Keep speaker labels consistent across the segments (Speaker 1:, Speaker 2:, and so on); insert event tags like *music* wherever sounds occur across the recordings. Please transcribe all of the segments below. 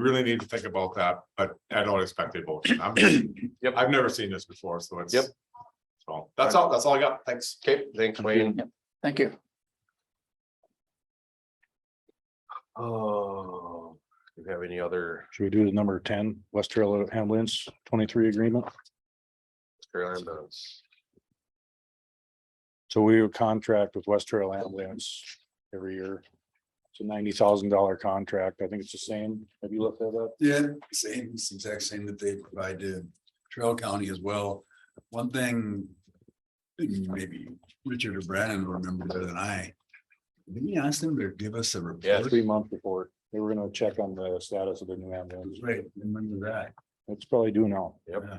Speaker 1: really need to think about that, but I don't expect a vote. I'm-
Speaker 2: Yep.
Speaker 1: I've never seen this before, so it's.
Speaker 2: Yep.
Speaker 1: So that's all, that's all I got. Thanks.
Speaker 2: Okay, thanks Wayne.
Speaker 3: Thank you.
Speaker 2: Oh, do you have any other
Speaker 4: Should we do the number ten, West Trail Hamlin's twenty-three agreement?
Speaker 2: Carolina boats?
Speaker 4: So we would contract with West Trail Ambulance every year. It's a ninety thousand dollar contract. I think it's the same. Have you looked that up?
Speaker 5: Yeah, same, it's the exact same that they provide to Trail County as well. One thing. Maybe Richard or Brandon will remember better than I. Maybe ask them to give us a
Speaker 2: Yeah,
Speaker 5: report.
Speaker 4: Three month report. They were gonna check on the status of the new ambulance.
Speaker 5: Right, remember that.
Speaker 4: It's probably due now,
Speaker 2: Yep.
Speaker 5: Yeah.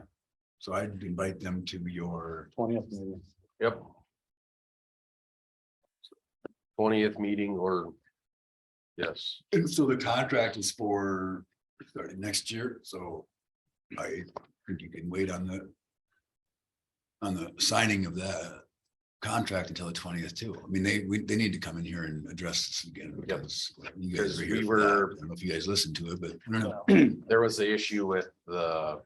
Speaker 5: So I'd invite them to your,
Speaker 4: twentieth maybe.
Speaker 2: Yep. Twentieth meeting or? Yes,
Speaker 5: and so the contract is for starting next year, so. I think you can wait on the. On the signing of the contract until the twentieth too. I mean, they, we, they need to come in here and address this again. because You guys
Speaker 2: Because
Speaker 5: are here
Speaker 2: we
Speaker 5: for that.
Speaker 2: were-
Speaker 5: I don't know if you guys listened to it, but I don't know.
Speaker 2: there was the issue with the.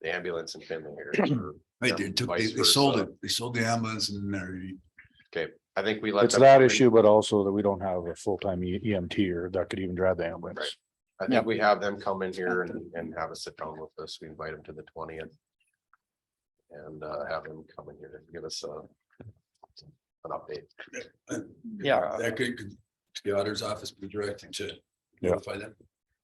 Speaker 2: The ambulance in Finley here.
Speaker 4: *clears throat*
Speaker 2: or-
Speaker 5: Right, they took, they,
Speaker 2: Vice
Speaker 5: they sold it,
Speaker 2: versa.
Speaker 5: they sold the ambulance and they're,
Speaker 2: I think we let.
Speaker 4: It's
Speaker 2: them-
Speaker 4: that issue, but also that we don't have a full-time E- EMT or that could even drive the ambulance.
Speaker 2: I think we have them come in here and, and have a sit down with us. We invite them to the twentieth. And, uh, have them come in here and give us a. An update.
Speaker 5: uh,
Speaker 3: Yeah.
Speaker 5: that could, could, the auditor's office be directing to.
Speaker 4: Yeah.
Speaker 5: notify them.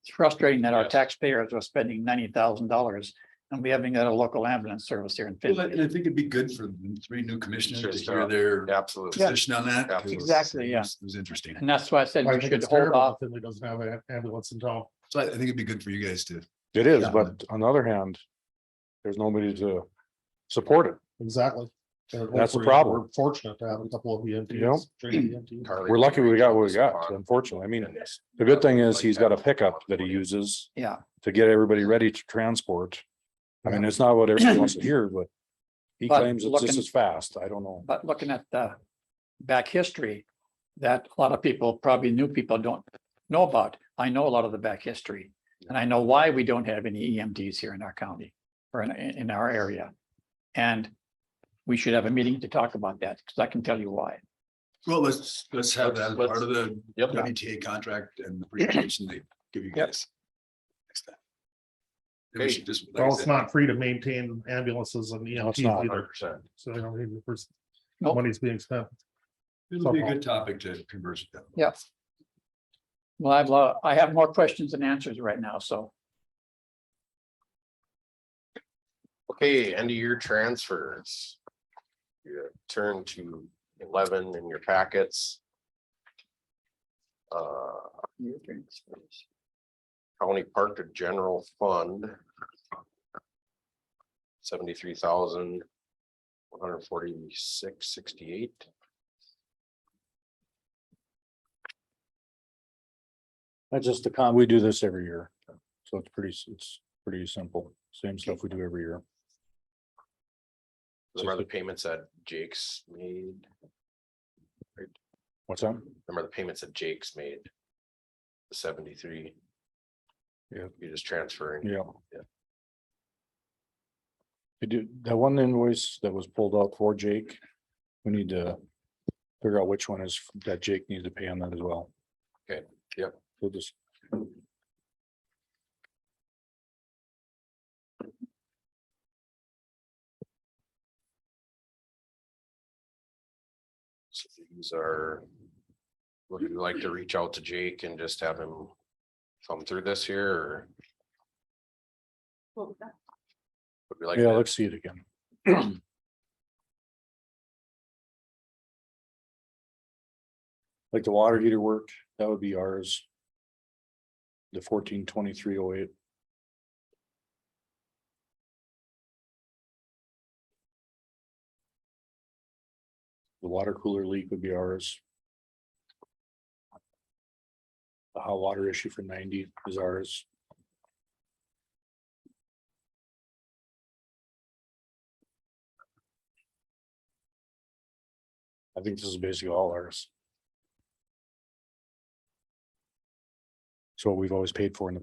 Speaker 3: It's frustrating that our
Speaker 2: Yes.
Speaker 3: taxpayers are spending ninety thousand dollars and we haven't got a local ambulance service here in
Speaker 5: Well, I I
Speaker 3: Findlay.
Speaker 5: think it'd be good for the three new commissioners to
Speaker 2: Sure,
Speaker 5: hear their
Speaker 2: Absolutely. Mm-hmm.
Speaker 5: position on that. 'cause
Speaker 3: Exactly, yeah.
Speaker 5: It was interesting.
Speaker 3: And that's why I said we should hold off.
Speaker 1: Finley doesn't have an ambulance in town.
Speaker 5: So I I think it'd be good for you guys to,
Speaker 4: It is,
Speaker 5: Yeah.
Speaker 4: but on the other hand, there's nobody to support it.
Speaker 6: Exactly. And
Speaker 4: That's the
Speaker 6: we're-
Speaker 4: problem.
Speaker 6: we're Fortunate to have a couple of EMTs.
Speaker 4: Yep.
Speaker 6: trained E EMTs.
Speaker 2: Carly
Speaker 4: We're lucky we got what we
Speaker 2: reached
Speaker 4: got,
Speaker 2: upon-
Speaker 4: unfortunately. I mean, the good thing is he's got a pickup that he uses.
Speaker 3: Yeah.
Speaker 4: To get everybody ready to transport. I mean, it's not what everyone wants
Speaker 2: *clears throat*
Speaker 4: to hear, but he
Speaker 3: But
Speaker 4: claims it's just
Speaker 3: looking-
Speaker 4: as fast. I don't know.
Speaker 3: But looking at the back history, that a lot of people, probably new people don't know about. I know a lot of the back history. And I know why we don't have any EMDs here in our county or in, in our area. And we should have a meeting to talk about that because I can tell you why.
Speaker 5: well, let's, let's have that as
Speaker 2: Let's-
Speaker 5: part of the
Speaker 2: Yep.
Speaker 5: WTA contract and the presentation they give you guys. next time. Maybe we
Speaker 2: Okay.
Speaker 5: should just- like I
Speaker 6: Well, it's
Speaker 5: said,
Speaker 6: not free to maintain ambulances and
Speaker 4: No, it's
Speaker 6: EMTs
Speaker 4: not.
Speaker 6: either,
Speaker 2: percent.
Speaker 6: so they don't even, first-
Speaker 3: Nope.
Speaker 6: money's being spent.
Speaker 5: It'll be a good topic to converse with them.
Speaker 3: Yes. Well, I've, lo- I have more questions than answers right now, so
Speaker 2: Okay, end of year transfers. You turn to eleven in your packets. Uh, county park to general fund. Seventy-three thousand. One hundred forty-six, sixty-eight.
Speaker 4: That's just the con, we do this every year. So it's pretty, s- it's pretty simple. Same stuff we do every year.
Speaker 2: Remember the payments that Jake's made?
Speaker 4: What's that?
Speaker 2: Remember the payments that Jake's made? The seventy-three.
Speaker 4: Yeah.
Speaker 2: You're just transferring.
Speaker 4: Yeah.
Speaker 2: Yeah.
Speaker 4: I do, that one invoice that was pulled out for Jake, we need to figure out which one is that Jake needs to pay on that as well.
Speaker 2: Okay, yep.
Speaker 4: We'll just,
Speaker 2: So these are. Would you like to reach out to Jake and just have him come through this here or would we like?
Speaker 4: yeah,
Speaker 2: to-
Speaker 4: let's see it again. *clears throat* Like the water heater work, that would be ours. The fourteen twenty-three oh eight. The water cooler leak would be ours. The hot water issue for ninety is ours. I think this is basically all ours. So we've always paid for in the